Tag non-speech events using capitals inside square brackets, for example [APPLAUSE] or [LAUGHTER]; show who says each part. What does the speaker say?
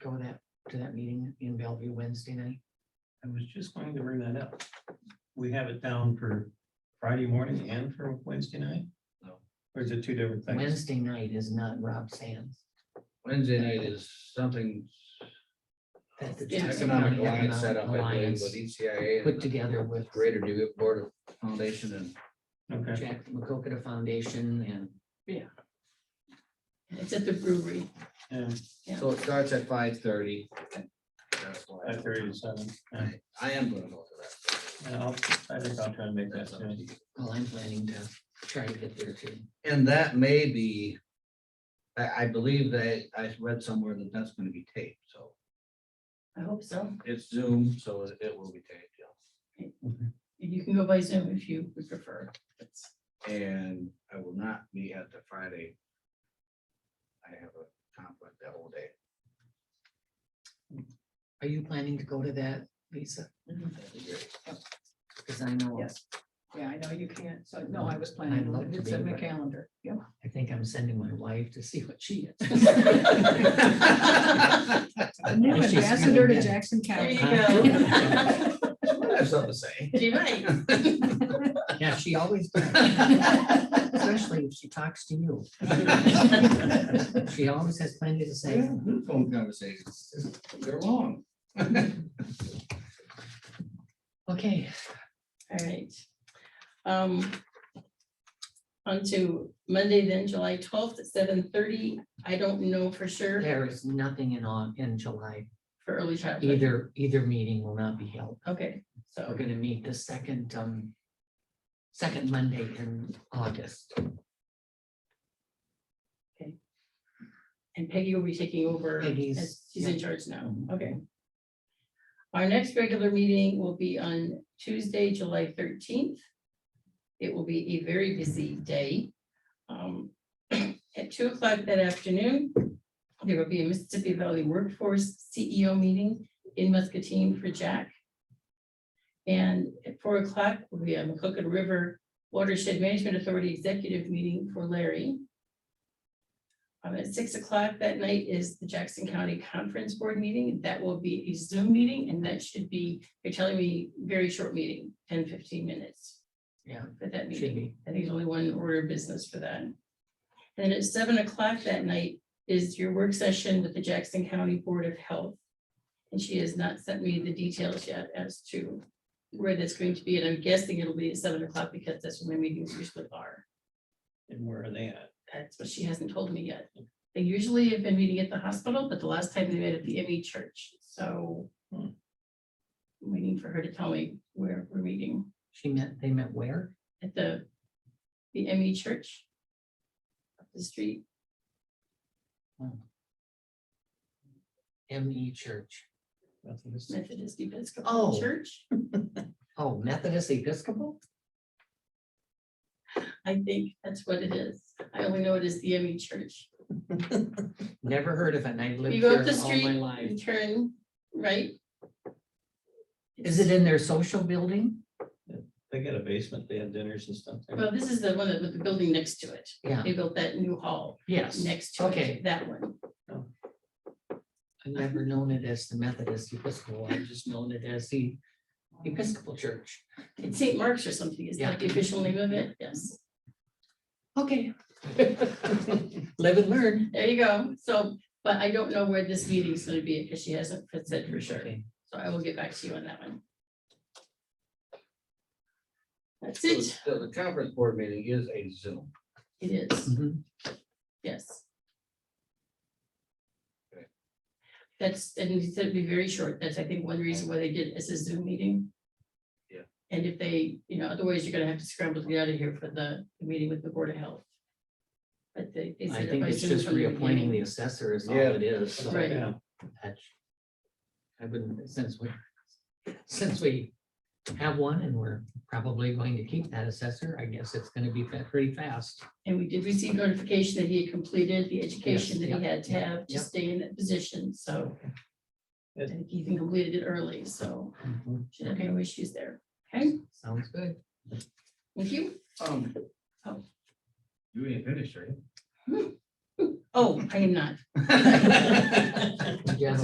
Speaker 1: to that meeting in Bellevue Wednesday night?
Speaker 2: I was just going to bring that up. We have it down for Friday morning and for Wednesday night?
Speaker 3: No.
Speaker 2: Or is it two different things?
Speaker 1: Wednesday night is not Rob Sands.
Speaker 3: Wednesday night is something
Speaker 1: That's the Jackson
Speaker 3: economic
Speaker 1: County
Speaker 3: alliance set up, I believe,
Speaker 1: Alliance
Speaker 3: with E ECIA.
Speaker 1: Put together with
Speaker 3: Greater Dubuque Board of Foundation and
Speaker 2: Okay,
Speaker 1: Jack McCoqueta Foundation and
Speaker 4: It's at the brewery.
Speaker 2: yeah,
Speaker 4: Yeah.
Speaker 3: so it starts at five thirty.
Speaker 2: at thirty-seven. Yeah,
Speaker 3: I am gonna go to
Speaker 2: yeah, I'll, I think I'll try and make that.
Speaker 3: that.
Speaker 2: too.
Speaker 1: well, I'm planning to try to get there too.
Speaker 3: And that may be, I, I believe that I read somewhere that that's gonna be taped, so
Speaker 4: I hope so.
Speaker 3: it's Zoom, so it- it will be taped, yeah.
Speaker 4: You can go by Zoom if you would prefer. That's-
Speaker 3: And I will not be at the Friday. I have a conflict that whole day.
Speaker 1: Are you planning to go to that, Lisa?
Speaker 3: That'd be great.
Speaker 1: Because I know,
Speaker 4: Yes. Yeah, I know you can't. So no, I was planning
Speaker 1: I'd
Speaker 4: on
Speaker 1: love
Speaker 4: it.
Speaker 1: to
Speaker 4: It's
Speaker 1: be,
Speaker 4: in my
Speaker 1: but-
Speaker 4: calendar. Yeah.
Speaker 1: I think I'm sending my wife to see what she
Speaker 3: [LAUGHS]
Speaker 1: is.
Speaker 4: There
Speaker 1: A new She's feeling ambassador to good.
Speaker 5: Jackson
Speaker 4: you [LAUGHS]
Speaker 1: [LAUGHS]
Speaker 4: go.
Speaker 3: I have something to say.
Speaker 4: She might.
Speaker 1: Yeah, she always, does, especially if she talks to you. She always has plenty to say.
Speaker 3: [LAUGHS] Phone conversations, they're long.
Speaker 1: Okay,
Speaker 4: All right. Um. On to Monday then, July twelfth at seven thirty. I don't know for sure
Speaker 1: there is nothing in on, in July.
Speaker 4: for early childhood.
Speaker 1: Either, either meeting will not be held.
Speaker 4: Okay,
Speaker 1: We're
Speaker 4: so
Speaker 1: gonna meet the second, um, second Monday in August.
Speaker 4: and Peggy will be taking over.
Speaker 1: Peggy's-
Speaker 4: as She's in
Speaker 1: yeah.
Speaker 4: charge now.
Speaker 1: Mhm.
Speaker 4: Okay. Our next regular meeting will be on Tuesday, July thirteenth. It will be a very busy day. Um, [CLEARS THROAT] At two o'clock that afternoon, there will be a Mississippi Valley Workforce CEO meeting in Muscatine for Jack. And at four o'clock, we have a Cooked River Watershed Management Authority Executive Meeting for Larry. Um, at six o'clock that night is the Jackson County Conference Board meeting. That will be a Zoom meeting and that should be, they're telling me, very short meeting, 10, 15 minutes.
Speaker 1: Yeah,
Speaker 4: For that
Speaker 1: should
Speaker 4: meeting.
Speaker 1: be.
Speaker 4: I think there's only one order of business for that. And at seven o'clock that night is your work session with the Jackson County Board of Health. And she has not sent me the details yet as to where that's going to be, and I'm guessing it'll be at seven o'clock because that's when my meetings usually are.
Speaker 2: And where are they at?
Speaker 4: That's what she hasn't told me yet. They usually have been meeting at the hospital, but the last time they met at the ME church, so.
Speaker 2: Hmm.
Speaker 4: Waiting for her to tell me where we're meeting
Speaker 1: She met, they met where?
Speaker 4: at the, the ME church. Up the street.
Speaker 1: ME E Church.
Speaker 2: Nothing to say.
Speaker 4: Methodist Episcopal
Speaker 1: Oh.
Speaker 4: Church,
Speaker 1: Oh, Methodist Episcopal?
Speaker 4: I think that's what it is. I only know it is the ME Church.
Speaker 1: Never heard of it. and I lived
Speaker 4: You go up
Speaker 1: here
Speaker 4: the
Speaker 1: all my
Speaker 4: street,
Speaker 1: life.
Speaker 4: you turn right.
Speaker 1: Is it in their social building?
Speaker 2: They got a basement, they have dinners and stuff. there.
Speaker 4: Well, this is the one that- with the building next to it.
Speaker 1: Yeah,
Speaker 4: They built that new hall
Speaker 1: yes.
Speaker 4: next to
Speaker 1: Okay.
Speaker 4: it, that one.
Speaker 1: I've never known it as the Methodist Episcopal. I've just known it as the Episcopal Church.
Speaker 4: It's St. Mark's or something, is that the official name of it? Yes.
Speaker 1: Okay. [LAUGHS] Live and learn.
Speaker 4: There you go. So, but I don't know where this meeting's gonna be because she hasn't said for sure.
Speaker 1: Okay.
Speaker 4: So I will get back to you on that one. That's
Speaker 3: So
Speaker 4: it.
Speaker 3: The the conference board meeting is a Zoom.
Speaker 4: It is.
Speaker 1: Mhm.
Speaker 4: Yes.
Speaker 3: Okay.
Speaker 4: That's, and it said it'd be very short. That's, I think, one reason why they did it as a Zoom meeting.
Speaker 3: Yeah.
Speaker 4: And if they, you know, otherwise you're gonna have to scramble to get out of here for the the meeting with the Board of Health. But they. they
Speaker 1: I
Speaker 4: said
Speaker 1: think
Speaker 4: if
Speaker 1: it's
Speaker 4: Zoom
Speaker 1: just
Speaker 4: from the
Speaker 1: reappointing the
Speaker 4: beginning-
Speaker 1: assessor is all
Speaker 3: Yeah.
Speaker 1: it is. so
Speaker 4: Right.
Speaker 2: Yeah,
Speaker 1: that's- I wouldn't, since we, since we have one and we're probably going to keep that assessor, I guess it's gonna be fa- pretty fast.
Speaker 4: And we did receive notification that he had completed the education that
Speaker 1: yeah,
Speaker 4: he had to
Speaker 1: yeah,
Speaker 4: have to
Speaker 1: yeah.
Speaker 4: stay in that position, so. I
Speaker 2: Good.
Speaker 4: think he even completed it early, so
Speaker 1: Mhm.
Speaker 4: should have no issues there. Okay,
Speaker 1: Sounds good.
Speaker 4: thank you.
Speaker 3: Um,
Speaker 4: Oh.
Speaker 3: You ain't finished, right? [LAUGHS]
Speaker 4: [LAUGHS] Oh, I am not.
Speaker 1: Yeah,